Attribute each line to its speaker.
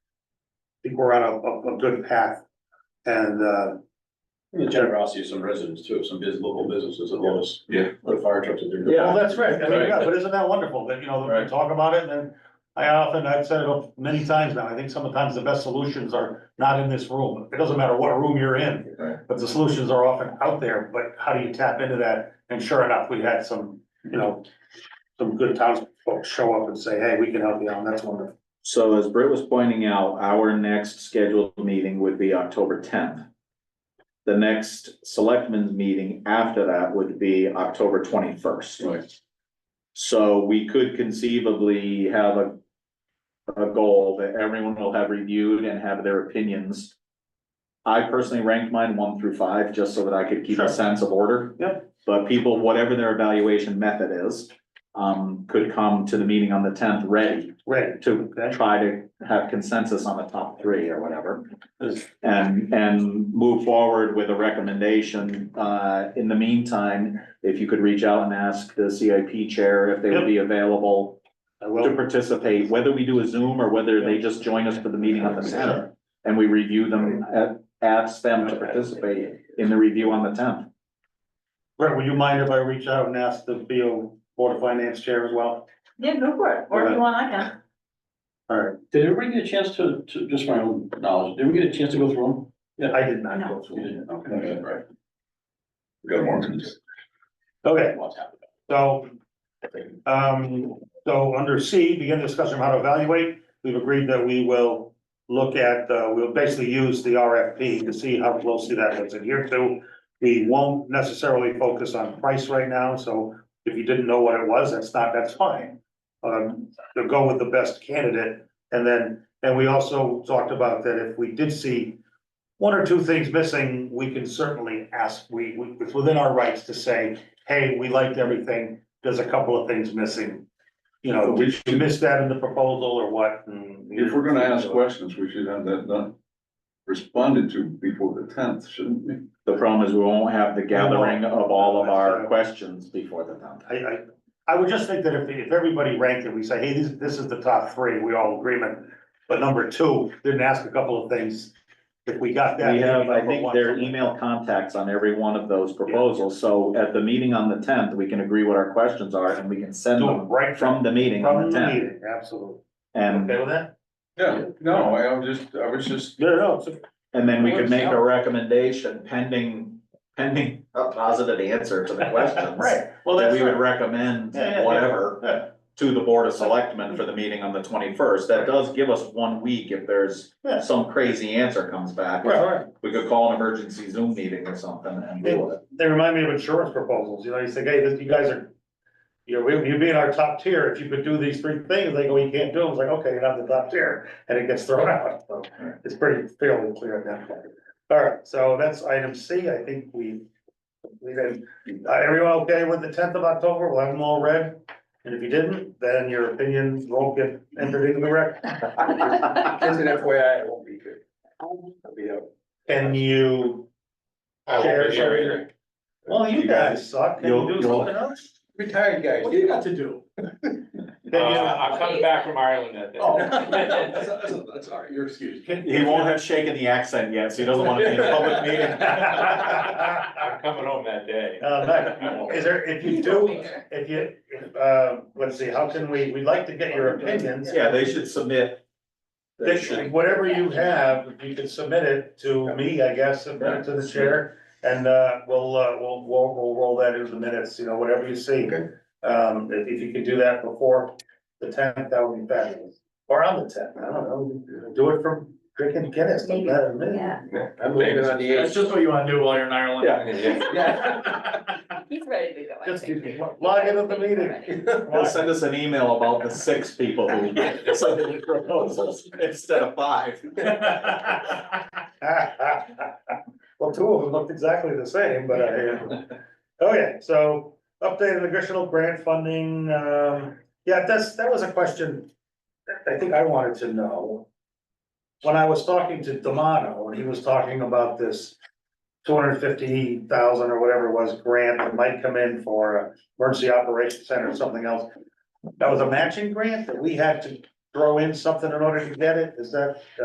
Speaker 1: think we're on a, a, a good path. And, uh,
Speaker 2: The generosity of some residents too, some biz, local businesses that let us.
Speaker 3: Yeah.
Speaker 2: Put fire trucks in their.
Speaker 1: well,
Speaker 3: Yeah,
Speaker 1: that's right, I mean,
Speaker 3: Right.
Speaker 1: yeah, but isn't that wonderful that, you know, that
Speaker 3: Right.
Speaker 1: we talk about it and then I often, I've said it many times now, I think sometimes the best solutions are not in this room. It doesn't matter what room you're in,
Speaker 3: Right.
Speaker 1: but the solutions are often out there, but how do you tap into that? And sure enough, we had some, you know, some good townsfolk show up and say, hey, we can help you out, and that's wonderful.
Speaker 4: So as Britt was pointing out, our next scheduled meeting would be October tenth. The next selectmen's meeting after that would be October twenty-first.
Speaker 3: Right.
Speaker 4: So we could conceivably have a, a goal that everyone will have reviewed and have their opinions. I personally ranked mine one through five, just so that I could keep
Speaker 1: Sure.
Speaker 4: a sense of order.
Speaker 1: Yep.
Speaker 4: But people, whatever their evaluation method is, um, could come to the meeting on the tenth ready
Speaker 1: Right,
Speaker 4: to
Speaker 1: Okay.
Speaker 4: try to have consensus on the top three or whatever.
Speaker 1: Is-
Speaker 4: And, and move forward with a recommendation. Uh, in the meantime, if you could reach out and ask the CIP chair if they would be available
Speaker 1: I
Speaker 4: to
Speaker 1: will,
Speaker 4: participate, whether we do a Zoom or whether they just join us for the meeting on the tenth. And we review them, uh, ask them to participate in the review on the tenth.
Speaker 1: Brett, would you mind if I reach out and ask the BO Board of Finance Chair as well?
Speaker 5: Yeah, go for it, or if you want, I can.
Speaker 1: All right,
Speaker 2: Did everybody get a chance to, to, just my own knowledge, did we get a chance to go through
Speaker 1: I did not
Speaker 2: them?
Speaker 1: go through. it.
Speaker 2: Okay, right.
Speaker 3: We got more. than-
Speaker 1: Okay,
Speaker 2: Lots happened.
Speaker 1: so, um, so under C, begin discussion of how to evaluate. We've agreed that we will look at, uh, we'll basically use the RFP to see how closely that was adhered to. We won't necessarily focus on price right now, so if you didn't know what it was, that's not, that's fine. Um, to go with the best candidate, and then, and we also talked about that if we did see one or two things missing, we can certainly ask, we, we, it's within our rights to say, hey, we liked everything, there's a couple of things missing. You know, did you miss that in the proposal or what? And-
Speaker 3: Uh, If we're gonna ask questions, we should have that done, responded to before the tenth, shouldn't we?
Speaker 4: The problem is we won't have the gathering of all of our questions before the tenth.
Speaker 1: I, I, I would just think that if, if everybody ranked it, we say, hey, this, this is the top three, we all agreement. But number two, didn't ask a couple of things, if we got that.
Speaker 4: We have, I
Speaker 1: number
Speaker 4: think,
Speaker 1: one,
Speaker 4: their
Speaker 1: something.
Speaker 4: email contacts on every one of those proposals, so at the meeting on the tenth, we can agree what our questions are, and we can send
Speaker 1: Do it
Speaker 4: them
Speaker 1: right from,
Speaker 4: from the meeting on
Speaker 1: from
Speaker 4: the
Speaker 1: the
Speaker 4: tenth.
Speaker 1: meeting, absolutely.
Speaker 4: And,
Speaker 1: Okay with that?
Speaker 3: Yeah, no, I was just, I was just,
Speaker 1: No, no, it's,
Speaker 4: and then we could make a recommendation pending, pending a positive answer to the questions.
Speaker 1: right, well,
Speaker 4: That
Speaker 1: that's.
Speaker 4: we would
Speaker 1: right.
Speaker 4: recommend
Speaker 1: Yeah, yeah, yeah.
Speaker 4: whatever
Speaker 1: Yeah.
Speaker 4: to the Board of Selectmen for the meeting on the twenty-first, that does give us one week if there's
Speaker 1: Yeah.
Speaker 4: some crazy answer comes back.
Speaker 1: Right, right.
Speaker 4: We could call an emergency Zoom meeting or something and do it.
Speaker 1: They remind me of insurance proposals, you know, you say, hey, this, you guys are, you're, you'd be in our top tier if you could do these three things, they go, you can't do them, it's like, okay, you're not the top tier, and it gets thrown out, so it's pretty fairly clear at that point. All right, so that's item C, I think we, we did, uh, everyone okay with the tenth of October, we'll have them all read? And if you didn't, then your opinion won't get entered into the record.
Speaker 3: as an FYI, it won't be good. I'll be out.
Speaker 1: Can you?
Speaker 6: I won't be here either.
Speaker 1: Well, you guys suck, can you do something else?
Speaker 3: Retired guys.
Speaker 2: What do you got to do?
Speaker 6: Uh,
Speaker 1: Can you-
Speaker 6: I'm coming back from Ireland that
Speaker 2: Oh,
Speaker 6: day.
Speaker 2: that's, that's, that's all right, you're excused.
Speaker 4: He won't have shaken the accent yet, so he doesn't wanna be in a public meeting.
Speaker 6: I'm coming home that day.
Speaker 1: Uh, Matt, is there, if you do, if you, if, uh, let's see, how can we, we'd like to get your opinions.
Speaker 4: Yeah, they should submit. They
Speaker 1: That you-
Speaker 4: should,
Speaker 1: Whatever you have, if you could submit it to me, I guess, submit it to the chair, and, uh, we'll, uh, we'll, we'll, we'll roll that into the minutes, you know, whatever you see.
Speaker 3: Okay.
Speaker 1: Um, if, if you could do that before the tenth, that would be fabulous, or on the tenth, I don't know, do it from drinking Guinness, don't matter to me.
Speaker 5: Yeah,
Speaker 6: I'm leaving on the
Speaker 2: That's just what you wanna do while you're in Ireland.
Speaker 4: Yeah.
Speaker 5: he's ready to go, I
Speaker 1: Just
Speaker 5: think.
Speaker 1: log into the meeting.
Speaker 4: they'll send us an email about the six people who submitted proposals instead of five.
Speaker 1: Well, two of them looked exactly the same, but uh, I, okay, so updated additional grant funding, um, yeah, that's, that was a question. that I think I wanted to know. When I was talking to Damano, and he was talking about this two hundred fifty thousand or whatever it was grant that might come in for a emergency operations center or something else. That was a matching grant that we had to throw in something in order to get it, is that?